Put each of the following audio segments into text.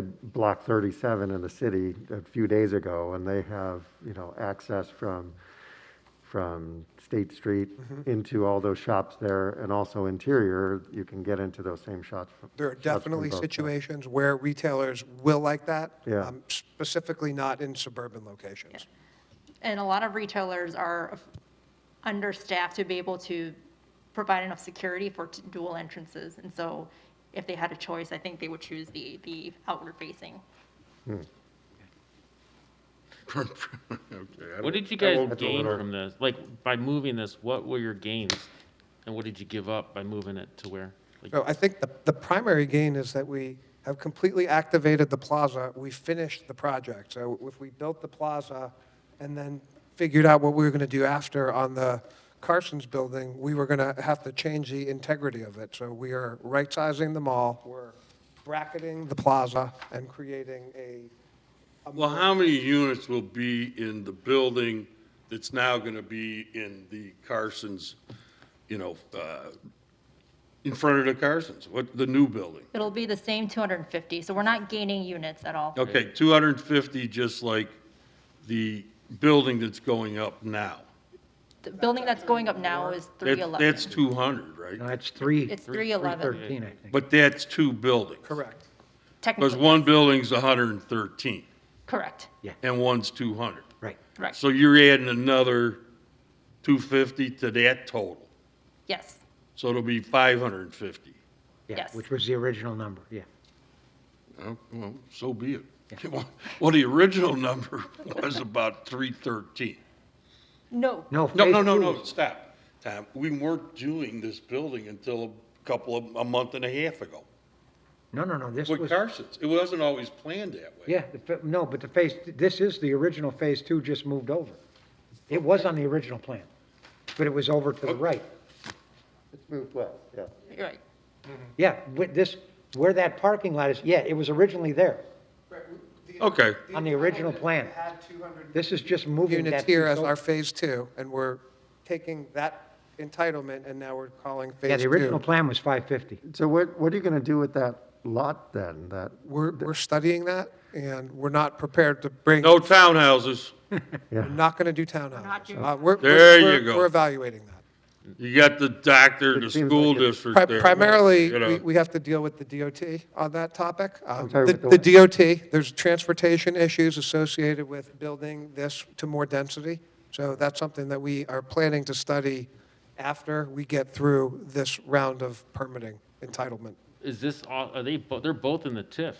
did Block 37 in the city a few days ago, and they have, you know, access from, from State Street into all those shops there, and also interior, you can get into those same shops. There are shops from definitely both sides. situations where retailers will like that. Yeah. um, Specifically not in suburban locations. And a lot of retailers are understaffed to be able to provide enough security for t- dual entrances. And so if they had a choice, I think they would choose the, the outward facing. Okay, I don't- What did you I guys won't- gain from this? Like, by moving this, what were your gains? And what did you give up by moving it to where? Like, So I think the, the primary gain is that we have completely activated the plaza. We finished the project. So if we built the plaza and then figured out what we were going to do after on the Carson's building, we were going to have to change the integrity of it. So we are right-sizing the mall, we're bracketing the plaza and creating a, Well, how many units will be in the building that's now going to be in the Carson's, you know, uh, in front of the Carson's? What, the new building? It'll be the same 250, so we're not gaining units at all. Okay, 250, just like the building that's going up now. The building that's going up now is That- That's 311. 200 right? No, it's three. It's 311 13, I think. But that's two buildings. correct. Because technically. one building's 113 Correct, and one's 200. Right. right, So you're adding another 250 to that total. yes. So it'll be 550. Yeah, Yes. which was the original number, yeah. Oh, Well, so be it. Well, the original number was about 313. No, No, No, phase no, no, two no, was- stop. Tom, we weren't doing this building until a couple of, a month and a half ago. No, no, no, this With was, Carson's. It wasn't always planned that way. yeah, the fa- no, but the phase, this is the original phase two just moved over. It was on the original plan, but it was over Oh. to the right. It's moved west, yeah. you're right. Yeah, with this, where that parking lot is, yeah, it was originally there, Okay. on the original plan. This is just moving Units that. here piece as our over. phase two, and we're taking that entitlement and now we're calling phase two. Yeah, the original plan was 550. So what, what are you going to do with that lot then, that? We're, we're studying that, and we're not prepared to bring, No we're townhouses. not going to do townhouses. Not doing- Uh, we're- There we're- you go. We're evaluating that. You got the doctor, the It seems school like it- district Pri- there. Primarily, you know. we- we have to deal with the DOT on that topic. Um, sorry, The with the the what? DOT, there's transportation issues associated with building this to more density. So that's something that we are planning to study after we get through this round of permitting entitlement. is this all, are they, bo- they're both in the TIF,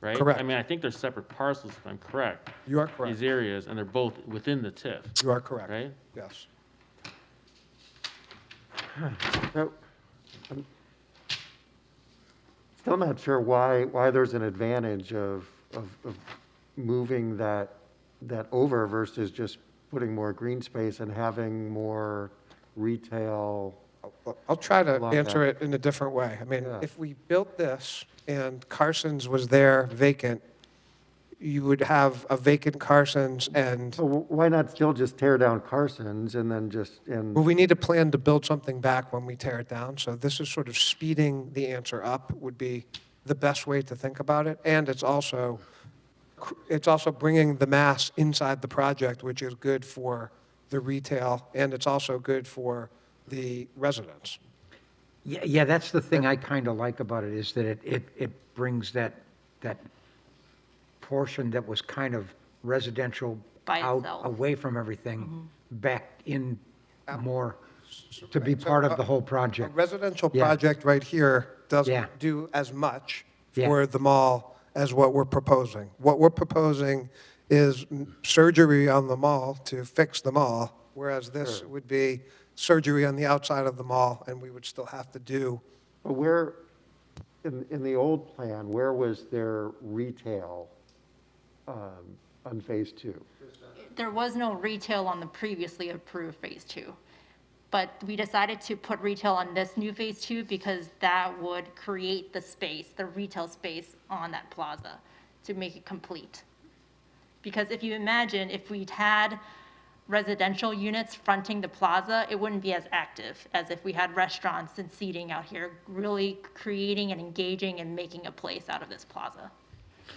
right? Correct. I mean, I think they're separate parcels, if I'm correct. You are These correct. areas, and they're both within the TIF, You are correct. right? Yes. So, I'm um, Still not sure why, why there's an advantage of, of, of moving that, that over versus just putting more green space and having more retail. Well, I'll try to Love that. answer it in a different way. I mean, Yeah. if we built this and Carson's was there vacant, you would have a vacant Carson's and, So wh- why not still just tear down Carson's and then just, and, well, we need a plan to build something back when we tear it down. So this is sort of speeding the answer up would be the best way to think about it. And it's also, cr- it's also bringing the mass inside the project, which is good for the retail and it's also good for the residents. Yeah, yeah, that's the thing I kind of like about it, is that it, it, it brings that, that portion that was kind of residential By out, itself. Mm-hmm. away from everything, back in more, to be part of the whole A project. residential Yeah. project right here Yeah. doesn't do as much Yeah. for the mall as what we're proposing. What we're proposing is m- surgery on the mall to fix the mall, whereas this Hmm. would be surgery on the outside of the mall, and we would still have to do, but where, in, in the old plan, where was their retail, um, on phase two? there was no retail on the previously approved phase two. But we decided to put retail on this new phase two because that would create the space, the retail space on that plaza to make it complete. Because if you imagine, if we'd had residential units fronting the plaza, it wouldn't be as active as if we had restaurants and seating out here, really creating and engaging and making a place out of this plaza.